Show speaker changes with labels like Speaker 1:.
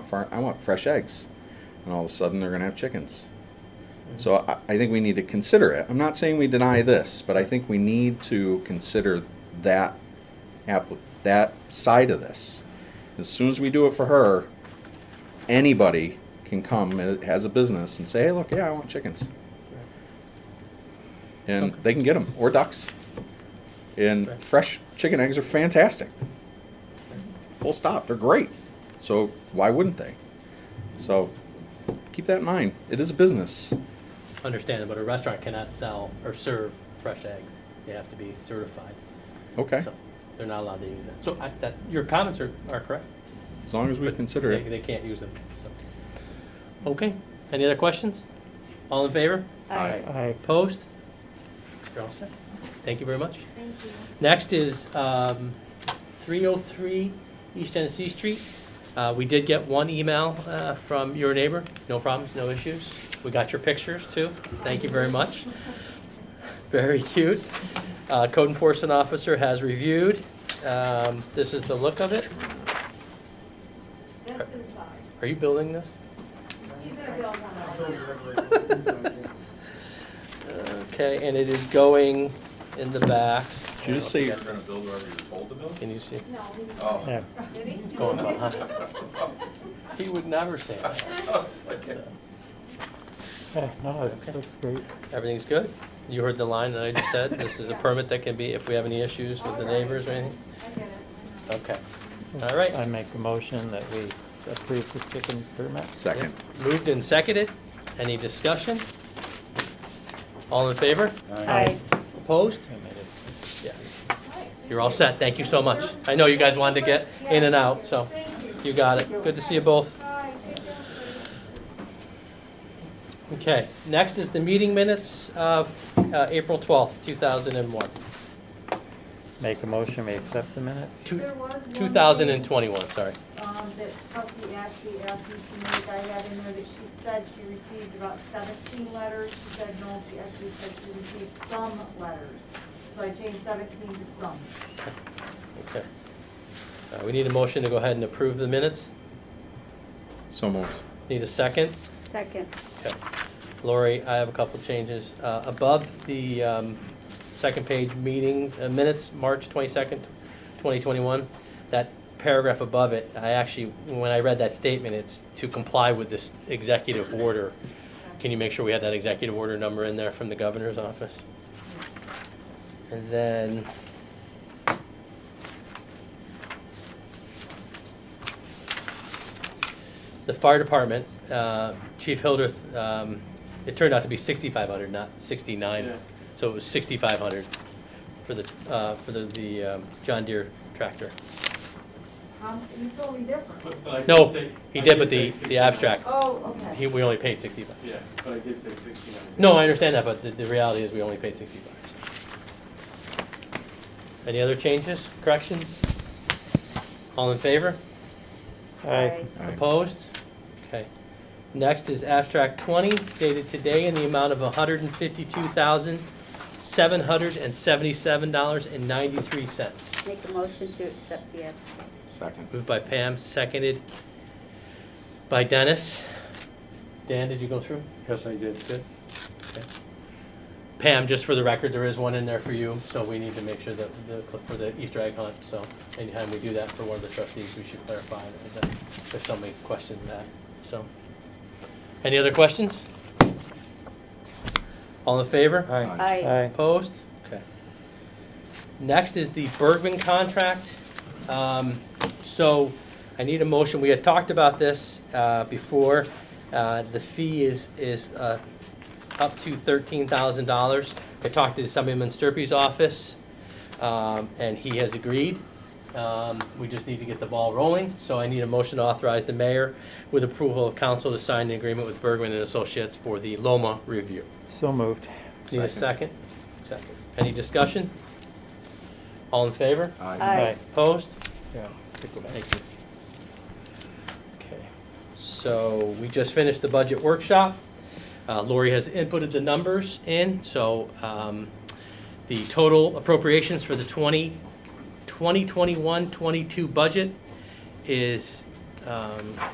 Speaker 1: far, I want fresh eggs. And all of a sudden, they're going to have chickens. So I, I think we need to consider it. I'm not saying we deny this, but I think we need to consider that appli- that side of this. As soon as we do it for her, anybody can come and has a business and say, "Hey, look, yeah, I want chickens," and they can get them or ducks. And
Speaker 2: Right.
Speaker 1: fresh chicken eggs are fantastic. Full stop. They're great. So why wouldn't they? So keep that in mind. It is a business.
Speaker 2: Understand, but a restaurant cannot sell or serve fresh eggs. They have to be certified.
Speaker 1: Okay.
Speaker 2: So they're not allowed to use that. So I, that, your comments are, are correct.
Speaker 1: As long as we
Speaker 2: but
Speaker 1: consider
Speaker 2: they-
Speaker 1: it.
Speaker 2: They can't use them, so. Okay, any other questions? All in favor?
Speaker 1: Aye.
Speaker 3: Aye.
Speaker 2: Opposed? You're all set. Thank you very much.
Speaker 4: Thank you.
Speaker 2: Next is um, 303 East Genesee Street. Uh, We did get one email uh, from your neighbor, no problems, no issues. We got your pictures too, thank you very much. Very cute. Uh, Code enforcement officer has reviewed. Um, This is the look of it.
Speaker 4: That's inside.
Speaker 2: Are you building this?
Speaker 4: He's gonna build one of them.
Speaker 2: Okay, and it is going in the back.
Speaker 1: Did you just say
Speaker 5: You're gonna build wherever you're told to build?
Speaker 2: Can you see?
Speaker 4: No, he didn't
Speaker 5: Oh.
Speaker 3: Yeah.
Speaker 4: say that. Did he?
Speaker 2: It's going on, huh? He would never say that.
Speaker 5: Okay.
Speaker 2: So,
Speaker 3: Yeah, no,
Speaker 2: Okay.
Speaker 3: it looks great.
Speaker 2: Everything's good? You heard the line that I just said? This is a permit that can be, if we have any issues with the neighbors or anything?
Speaker 4: I get it.
Speaker 2: Okay. All right.
Speaker 3: I make a motion that we approve the chicken permit.
Speaker 1: Second.
Speaker 2: Moved and seconded. Any discussion? All in favor?
Speaker 4: Aye.
Speaker 2: Opposed?
Speaker 3: I made it.
Speaker 2: Yeah.
Speaker 4: I know. Right.
Speaker 2: You're all set. Thank you so much. I know you guys wanted to get in and out, so
Speaker 4: Thank you.
Speaker 2: you got it. Good to see you both.
Speaker 4: Hi, take care, please.
Speaker 2: Okay, next is the meeting minutes of uh, April 12th, 2001.
Speaker 3: Make a motion, we accept the minutes.
Speaker 2: Two-
Speaker 6: There was one
Speaker 2: 2021, sorry.
Speaker 6: thing, Um, that trustee Ashley asked me to make, I had in there that she said she received about seventeen letters, she said no, she actually said she received some letters. So I changed seventeen to some.
Speaker 2: Okay. Uh, We need a motion to go ahead and approve the minutes.
Speaker 1: So moved.
Speaker 2: Need a second?
Speaker 7: Second.
Speaker 2: Okay. Lori, I have a couple changes. Uh, Above the um, second page meetings, uh, minutes, March 22nd, 2021, that paragraph above it, I actually, when I read that statement, it's to comply with this executive order. Can you make sure we have that executive order number in there from the governor's office? And then... The fire department, uh, Chief Hildreth, um, it turned out to be 6,500, not 69. So it was 6,500 for the, uh, for the the um, John Deere tractor.
Speaker 6: Um, you told me different.
Speaker 8: But- but I did
Speaker 2: No,
Speaker 8: say-
Speaker 2: he
Speaker 8: I
Speaker 2: did, but
Speaker 8: say
Speaker 2: the- the
Speaker 8: 69.
Speaker 2: abstract.
Speaker 6: Oh, okay.
Speaker 2: He, we only paid 65.
Speaker 8: Yeah, but I did say sixty-nine.
Speaker 2: No, I understand that, but the, the reality is we only paid sixty bucks. Any other changes, corrections? All in favor?
Speaker 3: Aye.
Speaker 1: Aye.
Speaker 2: Opposed? Okay. Next is abstract twenty dated today in the amount of hundred and fifty-two thousand, seven hundred and seventy-seven dollars and ninety-three cents.
Speaker 7: Make a motion to accept the abstract.
Speaker 1: Second.
Speaker 2: Moved by Pam, seconded by Dennis. Dan, did you go through?
Speaker 8: Yes, I did.
Speaker 2: Pam, just for the record, there is one in there for you, so we need to make sure that, the- for the Easter egg hunt, so anytime we do that for one of the trustees, we should clarify that there's somebody questioning that, so. Any other questions? All in favor?
Speaker 1: Aye.
Speaker 3: Aye.
Speaker 2: Opposed? Okay. Next is the Bergman contract. Um, So I need a motion, we had talked about this uh, before. Uh, The fee is, is uh, up to $13,000. I talked to somebody in Sturpey's office, um, and he has agreed. Um, We just need to get the ball rolling, so I need a motion to authorize the mayor with approval of council to sign the agreement with Bergman and Associates for the Loma review.
Speaker 3: So moved.
Speaker 2: Need a second? Second. Any discussion? All in favor?
Speaker 1: Aye.
Speaker 7: Aye.
Speaker 2: Opposed?
Speaker 3: Yeah.
Speaker 2: Thank you. Okay, so we just finished the budget workshop. Uh, Lori has inputted the numbers in, so um, the total appropriations for the 20, 2021-22 budget is um,